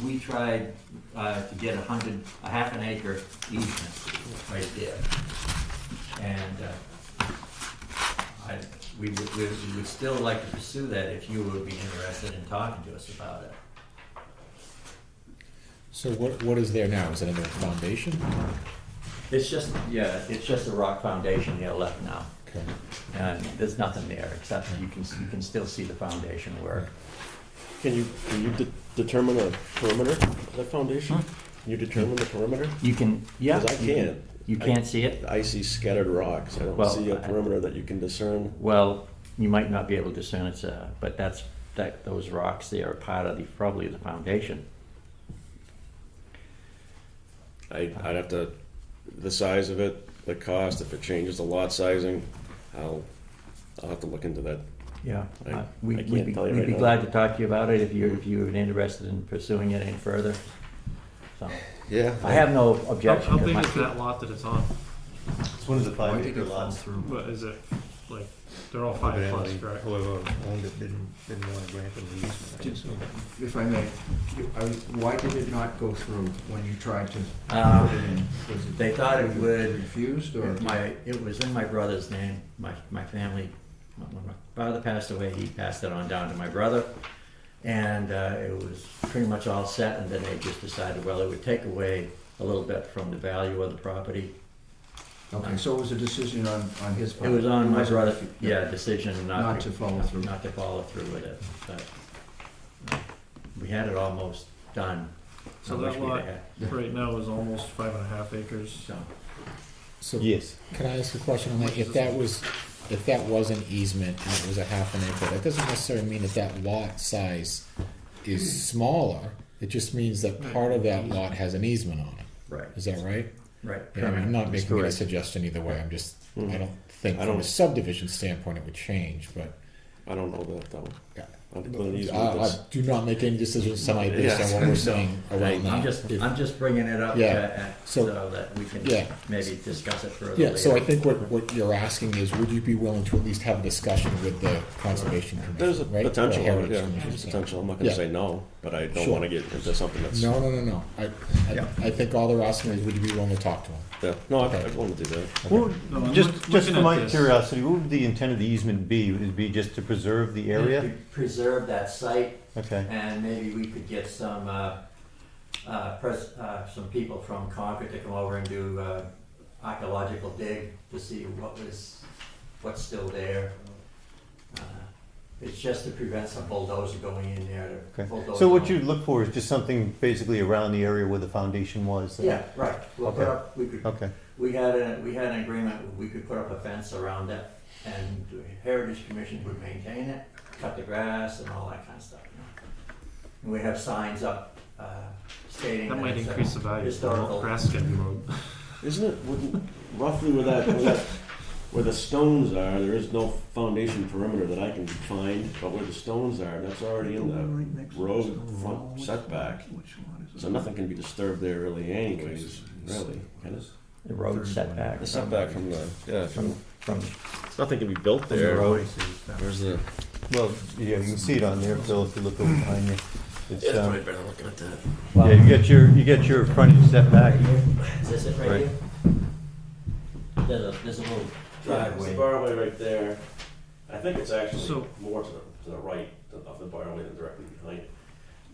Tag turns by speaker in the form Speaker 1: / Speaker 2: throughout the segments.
Speaker 1: we tried uh, to get a hundred, a half an acre easement right there. And uh, I, we would, we we would still like to pursue that if you would be interested in talking to us about it.
Speaker 2: So what, what is there now? Is it under a foundation?
Speaker 1: It's just, yeah, it's just a rock foundation there left now.
Speaker 2: Okay.
Speaker 1: And there's nothing there, except you can, you can still see the foundation work.
Speaker 3: Can you, can you de- determine a perimeter of that foundation? Can you determine the perimeter?
Speaker 1: You can, yeah.
Speaker 3: 'Cause I
Speaker 1: you can-
Speaker 3: can't.
Speaker 1: You can't see it?
Speaker 3: I see scattered rocks. I don't
Speaker 1: Well,
Speaker 3: see a
Speaker 1: I-
Speaker 3: perimeter that you can discern.
Speaker 1: Well, you might not be able to discern it's uh but that's, that, those rocks there are part of the, probably the foundation.
Speaker 3: I, I'd have to, the size of it, the cost, if it changes the lot sizing, I'll, I'll have to look into that.
Speaker 1: Yeah.
Speaker 3: I-
Speaker 1: Uh, we-
Speaker 3: I
Speaker 1: We'd
Speaker 3: can't
Speaker 1: be-
Speaker 3: tell you
Speaker 1: we'd
Speaker 3: right
Speaker 1: be
Speaker 3: now.
Speaker 1: glad to talk to you about it if you're, if you're interested in pursuing it any further. So,
Speaker 3: Yeah.
Speaker 1: I have no
Speaker 4: How,
Speaker 1: objection.
Speaker 4: how
Speaker 1: to
Speaker 4: big
Speaker 1: my-
Speaker 4: is that lot that it's on?
Speaker 5: It's one of the
Speaker 6: Why
Speaker 5: five
Speaker 6: did
Speaker 5: acre
Speaker 6: it fall
Speaker 5: lots.
Speaker 6: through?
Speaker 4: What is it? Like, they're all five plus,
Speaker 5: Evidently,
Speaker 4: correct?
Speaker 5: Whoever owned it didn't, didn't want to grant them the easement, I
Speaker 6: Did-
Speaker 5: assume.
Speaker 6: If I may, you- I was- why did it not go through when you tried to
Speaker 1: Uh,
Speaker 6: put it in? Was it-
Speaker 1: they thought it
Speaker 6: was
Speaker 1: would-
Speaker 6: Refused or?
Speaker 1: My, it was in my brother's name, my, my family, when my father passed away, he passed it on down to my brother. And uh, it was pretty much all set, and then they just decided, well, it would take away a little bit from the value of the property.
Speaker 6: Okay, so it was a decision on, on his
Speaker 1: It
Speaker 6: part?
Speaker 1: was on my
Speaker 6: wasn't-
Speaker 1: brother, yeah, decision not.
Speaker 6: Not to follow through.
Speaker 1: Not to follow through with it, but uh, we had it almost done.
Speaker 4: So
Speaker 1: I
Speaker 4: that
Speaker 1: wish we'd
Speaker 4: lot-
Speaker 1: had,
Speaker 4: Right now is almost five and a half acres.
Speaker 1: So,
Speaker 2: So
Speaker 3: Yes.
Speaker 2: can I ask a question on that? If that was, if that was an easement and it was a half an acre, that doesn't necessarily mean that that lot size is smaller. It just means that part of that lot has an easement on it.
Speaker 1: right,
Speaker 2: Is that right?
Speaker 1: right.
Speaker 2: Yeah, I mean, I'm not making any
Speaker 1: Correct.
Speaker 2: suggestion either way. I'm just, I don't think
Speaker 3: Hmm. I
Speaker 2: from a
Speaker 3: don't-
Speaker 2: subdivision standpoint it would change, but
Speaker 3: I don't know that, that one.
Speaker 2: Yeah.
Speaker 3: I don't know the
Speaker 2: I,
Speaker 3: easement
Speaker 2: I
Speaker 3: that's-
Speaker 2: do not make any decisions tonight based
Speaker 3: Yes.
Speaker 2: on what we're saying around that.
Speaker 1: I'm just,
Speaker 2: If-
Speaker 1: I'm just bringing it up uh,
Speaker 2: Yeah.
Speaker 1: uh,
Speaker 2: So-
Speaker 1: so that we can
Speaker 2: Yeah.
Speaker 1: maybe discuss it further later.
Speaker 2: Yeah, so I think what, what you're asking is, would you be willing to at least have a discussion with the conservation
Speaker 3: There's a
Speaker 2: commission, right? Or
Speaker 3: potential,
Speaker 2: Heritage
Speaker 3: yeah,
Speaker 2: Commission,
Speaker 3: there's
Speaker 2: so.
Speaker 3: potential. I'm not gonna
Speaker 2: Yeah.
Speaker 3: say no, but I don't
Speaker 2: Sure.
Speaker 3: wanna get into something that's,
Speaker 2: No, no, no, no, I,
Speaker 1: Yeah.
Speaker 2: I, I think all they're asking is, would you be willing to talk to them?
Speaker 3: yeah, no, I,
Speaker 2: Okay.
Speaker 3: I wanna do that.
Speaker 5: What would-
Speaker 4: No, I'm look-
Speaker 5: Just, just
Speaker 4: looking
Speaker 5: for
Speaker 4: at
Speaker 5: my
Speaker 4: this.
Speaker 5: curiosity, what would the intent of the easement be? Would it be just to preserve the area?
Speaker 1: Preserve that site,
Speaker 5: Okay.
Speaker 1: and maybe we could get some, uh, uh, pres, uh, some people from Concord to come over and do, uh, archaeological dig to see what was, what's still there. Uh, It's just to prevent some bulldozer going in there to
Speaker 5: Okay.
Speaker 1: bulldoze.
Speaker 5: So what
Speaker 1: on.
Speaker 5: you'd look for is just something basically around the area where the foundation was?
Speaker 1: Yeah, right, we'll put
Speaker 5: Okay.
Speaker 1: up, we could,
Speaker 5: Okay,
Speaker 1: we had a, we had an agreement, we could put up a fence around it, and the Heritage Commission would maintain it, cut the grass and all that kind of stuff, you know. And we have signs up, uh, stating.
Speaker 4: That might
Speaker 1: it's a
Speaker 4: increase the value of the
Speaker 1: Historical.
Speaker 4: grass getting mowed.
Speaker 3: Isn't it wouldn't- roughly where that, where that, where the stones are? There is no foundation perimeter that I can find, but where the stones are, that's already in the road front setback. So nothing can be disturbed there really, anyways. Really, can it?
Speaker 1: The road setback.
Speaker 3: The setback from the yeah,
Speaker 1: From,
Speaker 3: from,
Speaker 1: from,
Speaker 3: nothing can be built
Speaker 5: the
Speaker 3: there.
Speaker 5: road.
Speaker 3: Where's the?
Speaker 5: well, yeah, you can see it on there, Phil, if you look over behind you. It's, um,
Speaker 3: better looking at that.
Speaker 1: well,
Speaker 5: Yeah, you get your, you get your frontage setback.
Speaker 1: right here, is this it right
Speaker 5: Right.
Speaker 1: here? There's a, there's a little
Speaker 3: Yeah, it's the
Speaker 1: driveway,
Speaker 3: barway right there. I think it's actually
Speaker 4: So-
Speaker 3: more to the, to the right of the barway than directly behind it.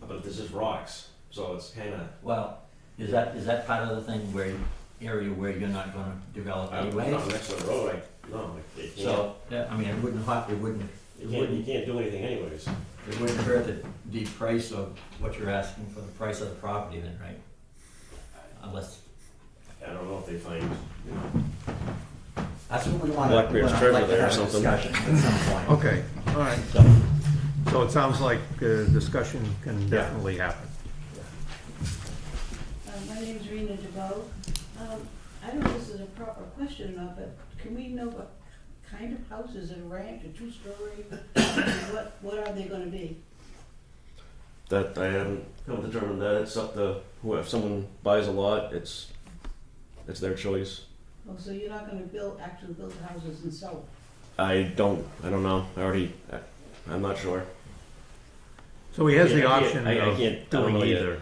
Speaker 3: But this is rocks, so it's kind of.
Speaker 1: well, is that, is that part of the thing where, you- area where you're not gonna develop
Speaker 3: I'm
Speaker 1: anyway?
Speaker 3: not next to the road, I, no, I- it can't,
Speaker 1: So, yeah, I mean, it wouldn't hot, it wouldn't, it
Speaker 3: you can't, you
Speaker 1: wouldn't,
Speaker 3: can't do anything anyways.
Speaker 1: it wouldn't hurt the, the price of what you're asking for the price of the property then, right? Unless,
Speaker 3: I don't know if they find, you know,
Speaker 1: that's what we want.
Speaker 3: Blackbeard's treasure there or something.
Speaker 1: Discussion at some point.
Speaker 6: Okay, all right,
Speaker 1: So,
Speaker 6: so it sounds like uh, discussion can definitely happen.
Speaker 7: Uh, My name's Rena DeVoe. Um, I don't know if this is a proper question or not, but can we know what kind of houses are ranked, a two-story? What, what are they gonna be?
Speaker 3: That I haven't I'll determine that, it's up to, who- if someone buys a lot, it's, it's their choice.
Speaker 7: Oh, so you're not gonna build, actually build houses and sell them?
Speaker 3: I don't, I don't know, I already, I- I'm not sure.
Speaker 6: So he has
Speaker 3: Yeah,
Speaker 6: the
Speaker 3: I can't-
Speaker 6: option
Speaker 3: I- I
Speaker 6: of
Speaker 3: can't- I don't
Speaker 6: doing
Speaker 3: know yet.
Speaker 6: either.